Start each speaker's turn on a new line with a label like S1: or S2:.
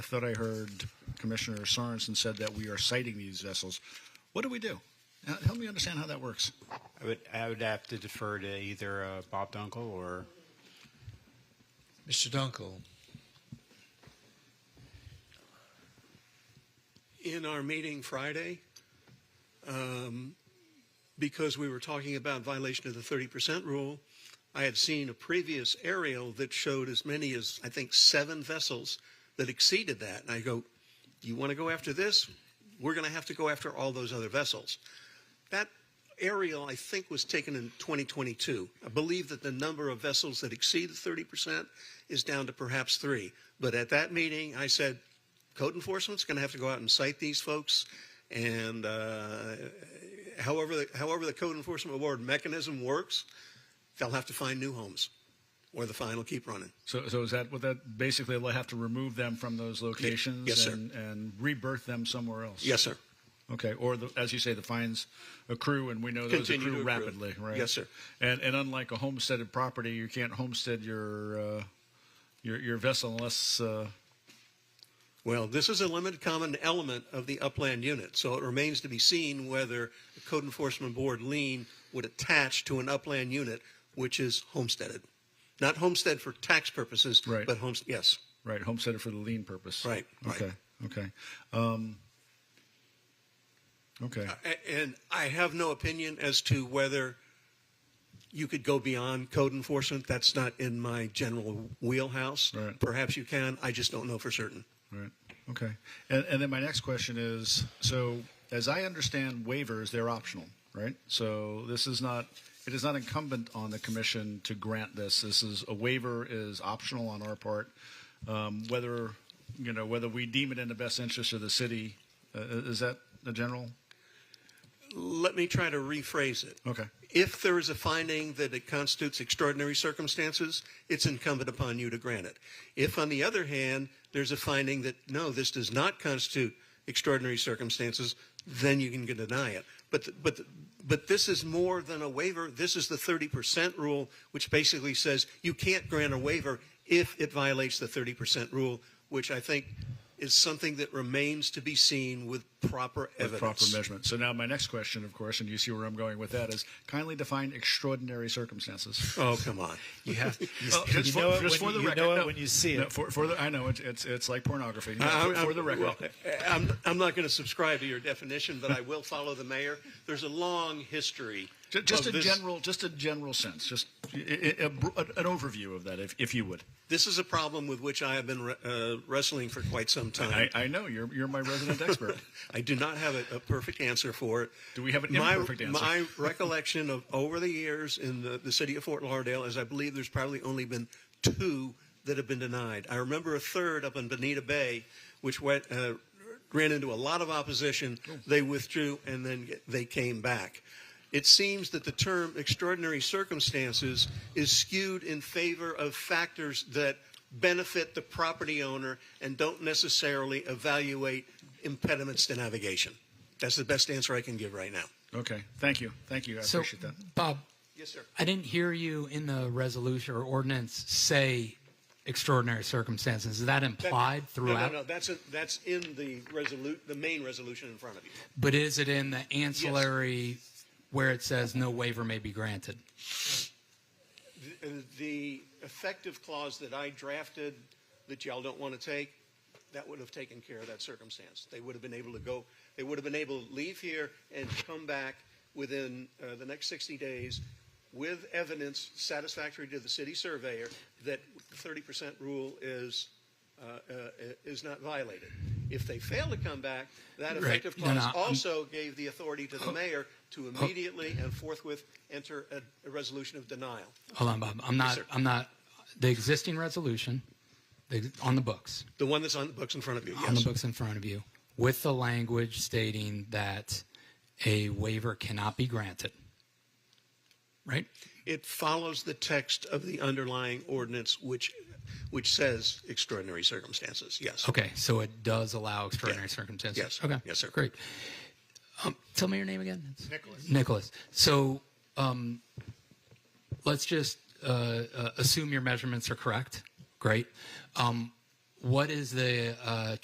S1: thought I heard Commissioner Sorensen said that we are citing these vessels. What do we do? Uh, Help me understand how that works.
S2: I would, I would have to defer to either uh, Bob Dunkel or
S3: Mr. Dunkel,
S4: in our meeting Friday, um, because we were talking about violation of the thirty percent rule, I had seen a previous aerial that showed as many as, I think, seven vessels that exceeded that. And I go, you want to go after this? We're going to have to go after all those other vessels. That aerial, I think, was taken in 2022. I believe that the number of vessels that exceed the 30% is down to perhaps three. But at that meeting, I said, code enforcement's going to have to go out and cite these folks. And uh, however, the, however the code enforcement award mechanism works, they'll have to find new homes, or the fine will keep running.
S1: So, so is that what that basically they'll have to remove them from those locations
S4: Yes, sir.
S1: and, and rebirth them somewhere else?
S4: Yes, sir.
S1: Okay, or the, as you say, the fines accrue, and we know those
S4: Continue
S1: accrue
S4: to accrue.
S1: rapidly, right?
S4: Yes, sir.
S1: And and unlike a homesteaded property, you can't homestead your uh, your your vessel unless uh,
S4: Well, this is a limited common element of the upland unit, so it remains to be seen whether a code enforcement board lien would attach to an upland unit which is homesteaded. Not homestead for tax purposes,
S1: Right.
S4: but homes, yes,
S1: right homesteaded for the lien purpose.
S4: Right, right.
S1: Okay. Okay. Um, okay.
S4: A- And I have no opinion as to whether you could go beyond code enforcement. That's not in my general wheelhouse.
S1: Right.
S4: Perhaps you can. I just don't know for certain.
S1: Right. Okay. And, and then my next question is so, as I understand waivers, they're optional, right? So, this is not, it is not incumbent on the commission to grant this. This is a waiver is optional on our part. Um, whether, you know, whether we deem it in the best interest of the city, uh, is that the general?
S4: Let me try to rephrase it.
S1: Okay.
S4: If there is a finding that it constitutes extraordinary circumstances, it's incumbent upon you to grant it. If, on the other hand, there's a finding that, no, this does not constitute extraordinary circumstances, then you can deny it. But, th- but, th- but this is more than a waiver. This is the 30% rule, which basically says you can't grant a waiver if it violates the 30% rule, which I think is something that remains to be seen with proper
S1: With
S4: evidence.
S1: proper measurement. So, now my next question, of course, and you see where I'm going with that, is kindly define extraordinary circumstances.
S4: Oh, come on.
S2: you have. You,
S1: Oh,
S2: you
S1: just for,
S2: know it
S1: just
S2: when
S1: for the
S2: you
S1: record,
S2: know it
S1: no.
S2: when you see
S1: No,
S2: it. Uh,
S1: for, for the, I know it's it's, it's like pornography. No,
S4: Uh, I'm-
S1: for,
S4: I'm-
S1: for the record,
S4: well, I'm, I'm not going to subscribe to your definition, but I will follow the mayor. There's a long history.
S1: Ju- just
S4: of
S1: a
S4: this.
S1: general, just a general sense, just i- i- a br- an overview of that, if, if you would.
S4: This is a problem with which I have been re- uh, wrestling for quite some time.
S1: I, I know you're you're my resident expert.
S4: I do not have a, a perfect answer for it.
S1: Do we have an
S4: my,
S1: imperfect answer?
S4: My recollection of over the years in the, the city of Fort Lauderdale is I believe there's probably only been two that have been denied. I remember a third up in Bonita Bay, which went, uh, ran into a lot of opposition. They withdrew and then get- they came back. It seems that the term extraordinary circumstances is skewed in favor of factors that benefit the property owner and don't necessarily evaluate impediments to navigation. That's the best answer I can give right now.
S1: Okay, thank you, thank you, I
S3: so
S1: appreciate that.
S5: Bob,
S4: Yes, sir.
S5: I didn't hear you in the resolution or ordinance say extraordinary circumstances. Is that implied
S4: No,
S5: throughout?
S4: no, no. That's, a, that's in the resolute, the main resolution in front of you.
S5: But is it in the ancillary where it says no waiver may be granted?
S4: The, uh, the effective clause that I drafted that y'all don't want to take, that would have taken care of that circumstance. They would have been able to go, they would have been able to leave here and come back within uh, the next 60 days with evidence satisfactory to the city surveyor that the 30% rule is, uh, uh, is not violated. If they fail to come back, that
S5: Right.
S4: effective
S5: No,
S4: clause
S5: no, I'm-
S4: also gave the authority to the mayor to immediately and forthwith enter a, a resolution of denial.
S5: Hold on, Bob. I'm not.
S4: sir.
S5: I'm not. The existing resolution, the, on the books,
S4: The one that's on the books in front of you,
S5: on the
S4: yes.
S5: books in front of you, with the language stating that a waiver cannot be granted. Right.
S4: It follows the text of the underlying ordinance, which, which says extraordinary circumstances, yes.
S5: Okay, so it does allow extraordinary
S4: Yeah.
S5: circumstances.
S4: Yes.
S5: Okay.
S4: Yes, sir.
S5: Great. Um, tell me your name again. Nicholas. Nicholas. So, um, let's just uh, uh, assume your measurements are correct. Great. Um, What is the uh,